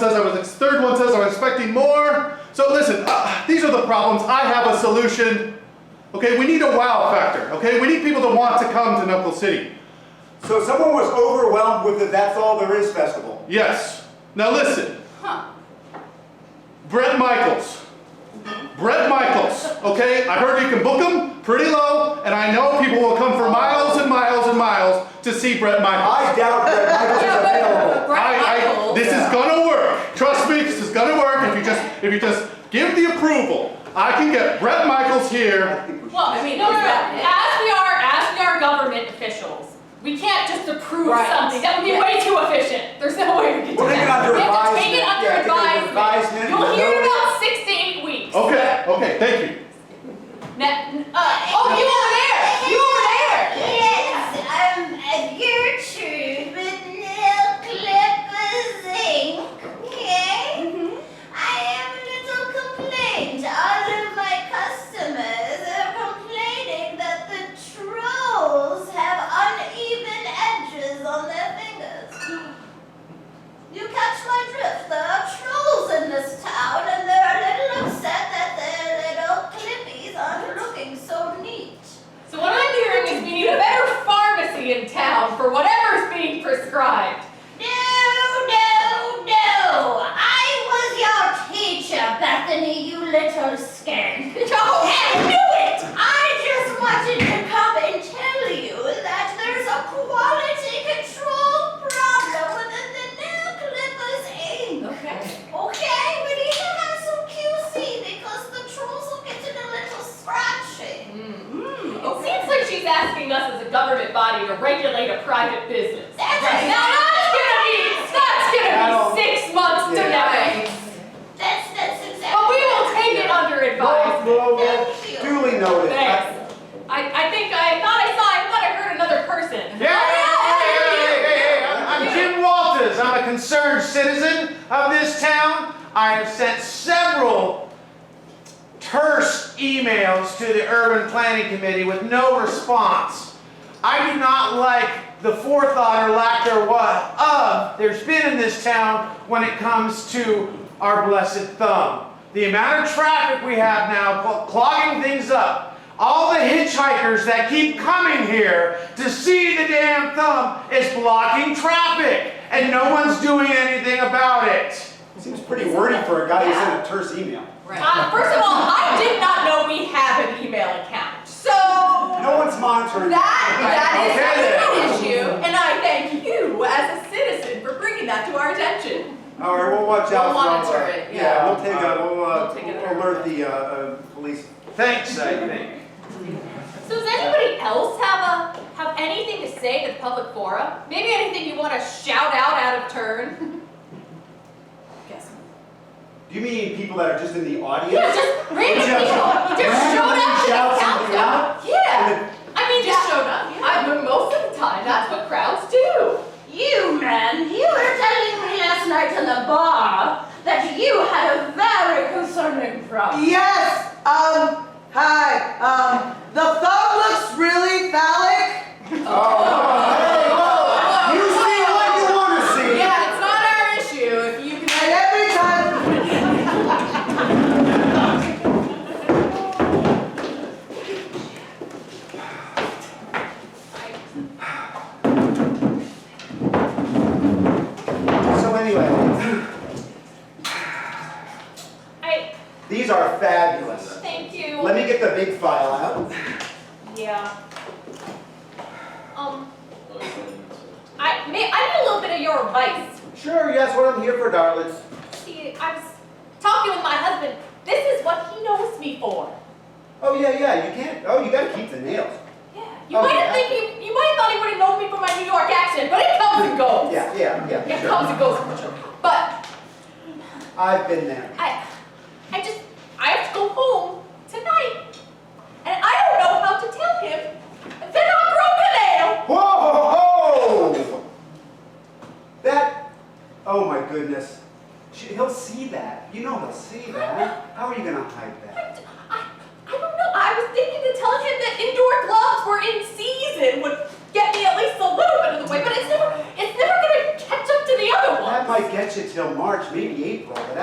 says I was ex- third one says I was expecting more. So listen, uh, these are the problems. I have a solution. Okay, we need a wow factor. Okay, we need people to want to come to Knuckle City. So someone was overwhelmed with the That's All There Is festival. Yes. Now listen, Huh. Brett Michaels. Brett Michaels. Okay, I heard you can book him pretty low, and I know people will come for miles and miles and miles to see Brett Michaels. I doubt that Michael's Yeah, but- but available. Brett I, I, Michaels- this is gonna work. Trust me, this is gonna work. If you just, if you just give the approval, I can get Brett Michaels here. Well, I mean, no, no, no. As we are, as we are government officials, we can't just approve Right. something. That would be way too efficient. There's no way we can do that. We're taking it under We have to take it advisement. Yeah, take it under under advisement. advisement. Oh. You'll hear No- about six to eight weeks. Okay, okay, thank you. Ne- uh, oh, you over there! You over there! Yes, I'm a Gertrude with nail clippers zinc. Okay? I have a little complaint. All of my customers are complaining that the trolls have uneven edges on their fingers. You catch my drift. There are trolls in this town, and they're a little upset that their little clippies aren't looking so neat. So what I'm hearing is we need a better pharmacy in town for whatever's being prescribed. No, no, no! I was your teacher, Bethany, you little skank. No, I knew it! I just wanted to come and tell you that there's a quality control problem within the nail clippers ink. Okay. Okay, we need to have some QC because the trolls are getting a little scratchy. It seems like she's asking us as a government body to regulate a private business. That's Now that's gonna be that's gonna That'll- be six months to Right. nothing. That's that's exactly. But we will take it under Well, advisement. well, well, Thank you. duly noted. Thanks. I, I think I thought I saw I thought I heard another person. Yeah, hey, hey, hey, hey, I'm- I'm Jim Walters. I'm a concerned citizen of this town. I have sent several terse emails to the Urban Planning Committee with no response. I do not like the forethought or lack thereof of there's been in this town when it comes to our blessed thumb. The amount of traffic we have now cl- clogging things up. All the hitchhikers that keep coming here to see the damn thumb is blocking traffic and no one's doing anything about it. Seems pretty wordy for a guy who sent a terse email. Uh, first of all, I did not know we have an email account. So No one's monitoring. That, that is Okay an issue, and I thank you as a citizen for bringing that to our attention. All right, we'll watch We'll out. for all monitor that. it, Yeah, yeah. we'll take a, we'll, uh, We'll take it we'll under alert the, uh, uh, police. Thanks, I think. So does anybody else have a have anything to say to the public forum? Maybe anything you want to shout out out of turn? Yes. Do you mean people that are just in the audience? Yeah, just random Just- people. Just randomly showed up to shout the something countdown. out? Yeah. And I mean, Just that- showed up, yeah. I, but most of the time, that's what crowds do. You, man, you were telling me last night in the bar that you had a very concerning problem. Yes, um, hi, um, the thumb looks really phallic. then- Oh, You see what you wanna see. Yeah, it's not our issue if you can. And every time, So anyway, I these are fabulous. thank you. Let me get the big file out. Yeah. Um. I may I need a little bit of your advice. Sure, yes, what I'm here for, darlings. See, I was talking with my husband. This is what he knows me for. Oh, yeah, yeah, you can't, oh, you gotta keep the nails. Yeah. You Oh, might have yeah. think you you might have thought he would have known me for my New York accent, but it comes and goes. Yeah, yeah, yeah, It sure. comes and goes for sure. But I've been there. I, I just, I have to go home tonight, and I don't know how to tell him that I broke a nail. Whoa, ho, ho! That, oh my goodness. She- He'll see that. You know he'll see that. How are you gonna hide that? I, I, I don't know. I was thinking to tell him that indoor gloves were in season would get me at least a little bit of the way, but it's never, it's never gonna catch up to the other one. That might get you till March, maybe April, but